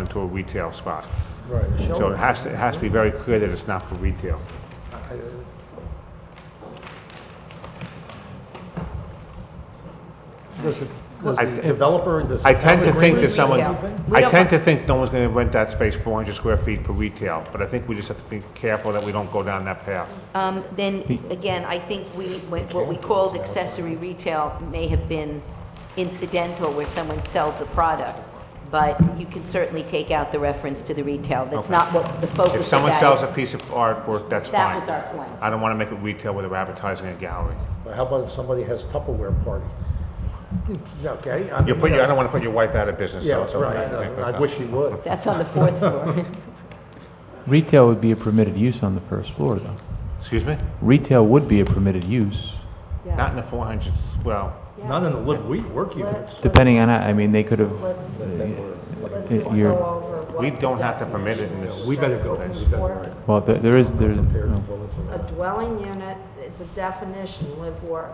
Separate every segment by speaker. Speaker 1: into a retail spot.
Speaker 2: Right.
Speaker 1: So it has to, it has to be very clear that it's not for retail.
Speaker 2: Does it, does
Speaker 1: I-
Speaker 2: the developer, does the
Speaker 1: I
Speaker 2: town
Speaker 1: tend to think
Speaker 2: agree?
Speaker 1: that someone,
Speaker 3: Retail. We
Speaker 1: I
Speaker 3: don't
Speaker 1: tend to think no one's gonna rent that space four hundred square feet for retail, but I think we just have to be careful that we don't go down that path.
Speaker 3: Um, Then, again, I think we, what what we called accessory retail may have been incidental where someone sells a product, but you can certainly take out the reference to the retail. That's
Speaker 1: Okay.
Speaker 3: not what the focus of that
Speaker 1: If
Speaker 3: is.
Speaker 1: someone sells a piece of artwork, that's
Speaker 3: That
Speaker 1: fine.
Speaker 3: was our point.
Speaker 1: I don't wanna make it retail where they're advertising a gallery.
Speaker 2: But How about if somebody has Tupperware party? Okay. I
Speaker 1: You
Speaker 2: mean,
Speaker 1: put,
Speaker 2: you
Speaker 1: your- I
Speaker 2: know,
Speaker 1: don't wanna put your wife out of business, so it's
Speaker 2: Yeah,
Speaker 1: okay.
Speaker 2: right, I- I wish he would.
Speaker 3: That's on the fourth floor.
Speaker 4: Retail would be a permitted use on the first floor, though.
Speaker 1: Excuse me?
Speaker 4: Retail would be a permitted use,
Speaker 3: Yeah.
Speaker 1: Not in the four hundreds, well,
Speaker 2: Not in the live we work units.
Speaker 4: depending on, how- I mean, they could have,
Speaker 5: Let's, let's
Speaker 4: If
Speaker 5: just
Speaker 4: you're-
Speaker 5: go over what.
Speaker 1: we don't have to permit it in this.
Speaker 2: We better go.
Speaker 5: definition
Speaker 2: We
Speaker 5: is
Speaker 2: better-
Speaker 5: for
Speaker 4: well, there- there is, there's, no.
Speaker 5: A dwelling unit, it's a definition, live work.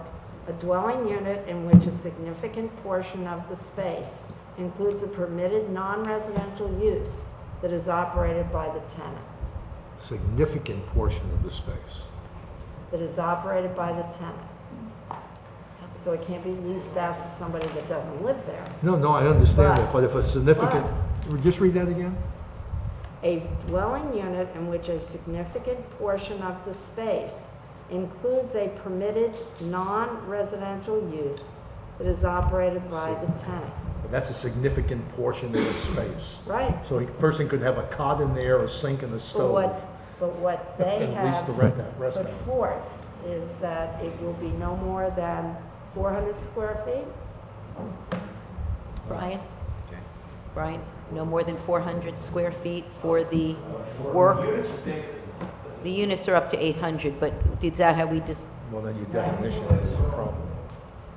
Speaker 5: A dwelling unit in which a significant portion of the space includes a permitted non-residential use that is operated by the tenant,
Speaker 2: Significant portion of the space.
Speaker 5: that is operated by the tenant. So it can't be leased out to somebody that doesn't live there.
Speaker 2: No, no, I understand that,
Speaker 5: But-
Speaker 2: but if a significant, just read that again?
Speaker 5: A dwelling unit in which a significant portion of the space includes a permitted non-residential use that is operated by the tenant.
Speaker 2: That's a significant portion of the space.
Speaker 5: Right.
Speaker 2: So a person could have a cot in there, a sink and a
Speaker 5: But
Speaker 2: stove.
Speaker 5: what, but what they
Speaker 2: And lease
Speaker 5: have
Speaker 2: to rent that
Speaker 5: put
Speaker 2: restaurant.
Speaker 5: forth is that it will be no more than 400 square feet?
Speaker 3: Brian? Brian, no more than 400 square feet for the work? The units are up to 800, but is that how we just,
Speaker 2: Well, then your definition is a problem.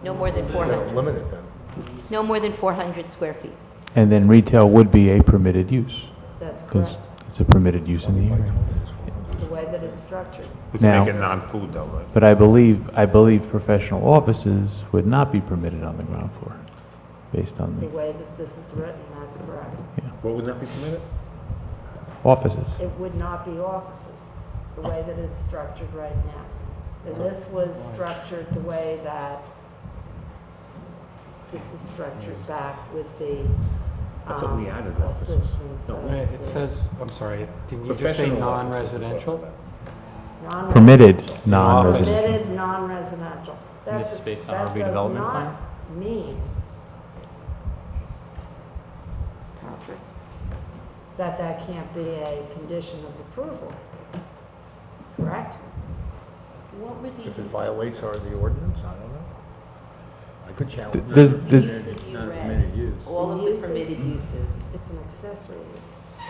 Speaker 3: no more than
Speaker 2: You gotta
Speaker 3: 400?
Speaker 2: limit it then.
Speaker 3: No more than 400 square feet.
Speaker 4: and then retail would be a permitted use,
Speaker 5: That's correct,
Speaker 4: because it's a permitted use in the area.
Speaker 5: the way that it's structured.
Speaker 1: We can make
Speaker 4: Now-
Speaker 1: it non-food though, right?
Speaker 4: But I believe, I believe professional offices would not be permitted on the ground floor, based on
Speaker 5: The
Speaker 4: the
Speaker 5: way that this is written, that's correct.
Speaker 1: What would not be permitted?
Speaker 4: offices.
Speaker 5: it would not be offices, the way that it's structured right now. And this was structured the way that this is structured back with the
Speaker 1: I thought we
Speaker 5: um,
Speaker 1: added offices.
Speaker 5: assistance
Speaker 1: No,
Speaker 5: of
Speaker 6: Wait, It
Speaker 5: the
Speaker 6: says, I'm sorry, didn't you just say
Speaker 1: Professional offices is what we're
Speaker 6: non-residential?
Speaker 5: non-
Speaker 4: Permitted
Speaker 6: Office.
Speaker 4: non-residential.
Speaker 5: Permitted non-residential.
Speaker 6: And this
Speaker 5: That's-
Speaker 6: is based on
Speaker 5: that
Speaker 6: our
Speaker 5: does
Speaker 6: redevelopment
Speaker 5: not
Speaker 6: plan?
Speaker 5: Mean, Patrick, that that can't be a condition of approval, correct?
Speaker 3: What were the
Speaker 2: If it violates our, the ordinance, I don't know. I could challenge. it.
Speaker 4: There's,
Speaker 3: The
Speaker 4: there's,
Speaker 3: uses you read, all of the permitted uses.
Speaker 5: It's an accessory use,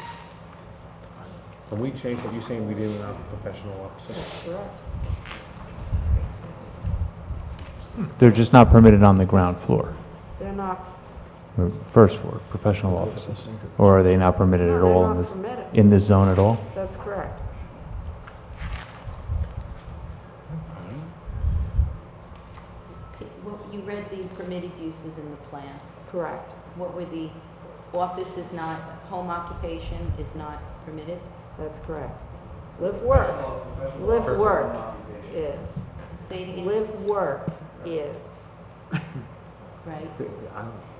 Speaker 1: When we changed, are you saying we didn't allow professional offices?
Speaker 5: correct?
Speaker 4: they're just not permitted on the ground floor,
Speaker 5: They're not,
Speaker 4: or first floor, professional offices. Or are they not permitted
Speaker 5: no,
Speaker 4: at
Speaker 5: they're
Speaker 4: all in
Speaker 5: not
Speaker 4: this,
Speaker 5: permitted.
Speaker 4: in this zone at all?
Speaker 5: That's correct.
Speaker 3: Okay, Well, you read the permitted uses in the plan.
Speaker 5: Correct.
Speaker 3: What were the, office is not, home occupation is not permitted?
Speaker 5: That's correct. Live work. Live work is.
Speaker 3: Say it again,
Speaker 5: Live work is.
Speaker 3: right?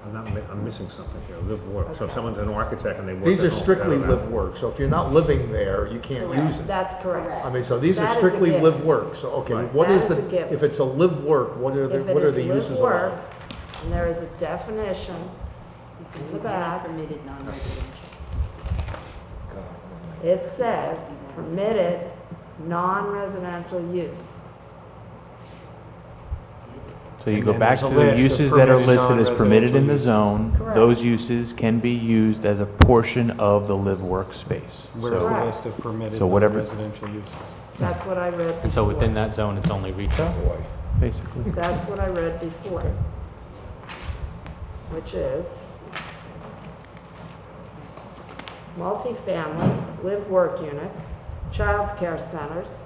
Speaker 1: I'm not, mi- I'm missing something here, live work. So if someone's an architect and they work.
Speaker 2: These
Speaker 1: at
Speaker 2: are
Speaker 1: home,
Speaker 2: strictly
Speaker 1: I don't know.
Speaker 2: live work, so if you're not living there, you can't use it.
Speaker 5: That's correct.
Speaker 2: I mean, so these are
Speaker 5: That is a
Speaker 2: strictly
Speaker 5: given.
Speaker 2: live work, so, okay,
Speaker 1: Right.
Speaker 2: what
Speaker 5: That
Speaker 2: is
Speaker 5: is
Speaker 2: the,
Speaker 5: a given.
Speaker 2: if it's a live work, what are the,
Speaker 5: If it
Speaker 2: what are
Speaker 5: is
Speaker 2: the uses
Speaker 5: live
Speaker 2: of
Speaker 5: work,
Speaker 2: that?
Speaker 5: and there is a definition, In the back.
Speaker 3: Permitted non-residential.
Speaker 5: it says permitted non-residential use.
Speaker 4: So you
Speaker 6: And
Speaker 4: go
Speaker 6: then
Speaker 4: back
Speaker 6: there's a
Speaker 4: to
Speaker 6: list
Speaker 4: the
Speaker 6: of
Speaker 4: uses that are
Speaker 6: permitted
Speaker 4: listed as permitted in
Speaker 6: non-residential
Speaker 4: the
Speaker 6: uses.
Speaker 4: zone.
Speaker 5: Correct.
Speaker 4: Those uses can be used as a portion of the live workspace.
Speaker 6: Where's the
Speaker 4: So,
Speaker 5: Correct.
Speaker 6: list of permitted
Speaker 4: So whatever-
Speaker 6: non-residential uses?
Speaker 5: That's what I read.
Speaker 6: And so
Speaker 5: before.
Speaker 6: within that zone, it's only retail?
Speaker 4: basically,
Speaker 5: That's what I read before. Which is multifamily, live-work units, childcare centers,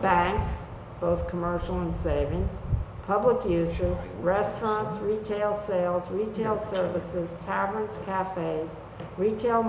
Speaker 5: banks, both commercial and savings, public uses, restaurants, retail sales, retail services, taverns, cafes, retail